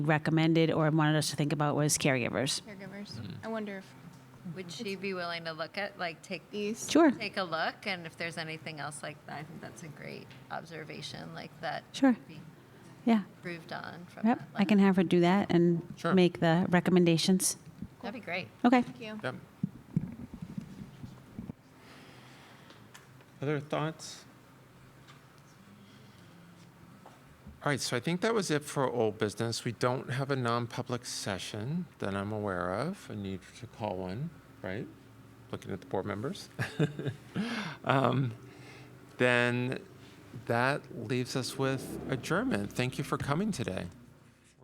recommended or wanted us to think about was caregivers. caregivers. I wonder if Would she be willing to look at, like, take, these. Sure, take a look, and if there's anything else like that, I think that's a great observation, like, that Sure. could be yeah. improved on from Yep, that I can lens. have her do that and Sure. make the recommendations. That'd be great. Okay. Thank you. Yep. Other thoughts? All right, so I think that was it for old business. We don't have a non-public session that I'm aware of. I need to call one, right? Looking at the board members. Um, Then that leaves us with adjournment. Thank you for coming today.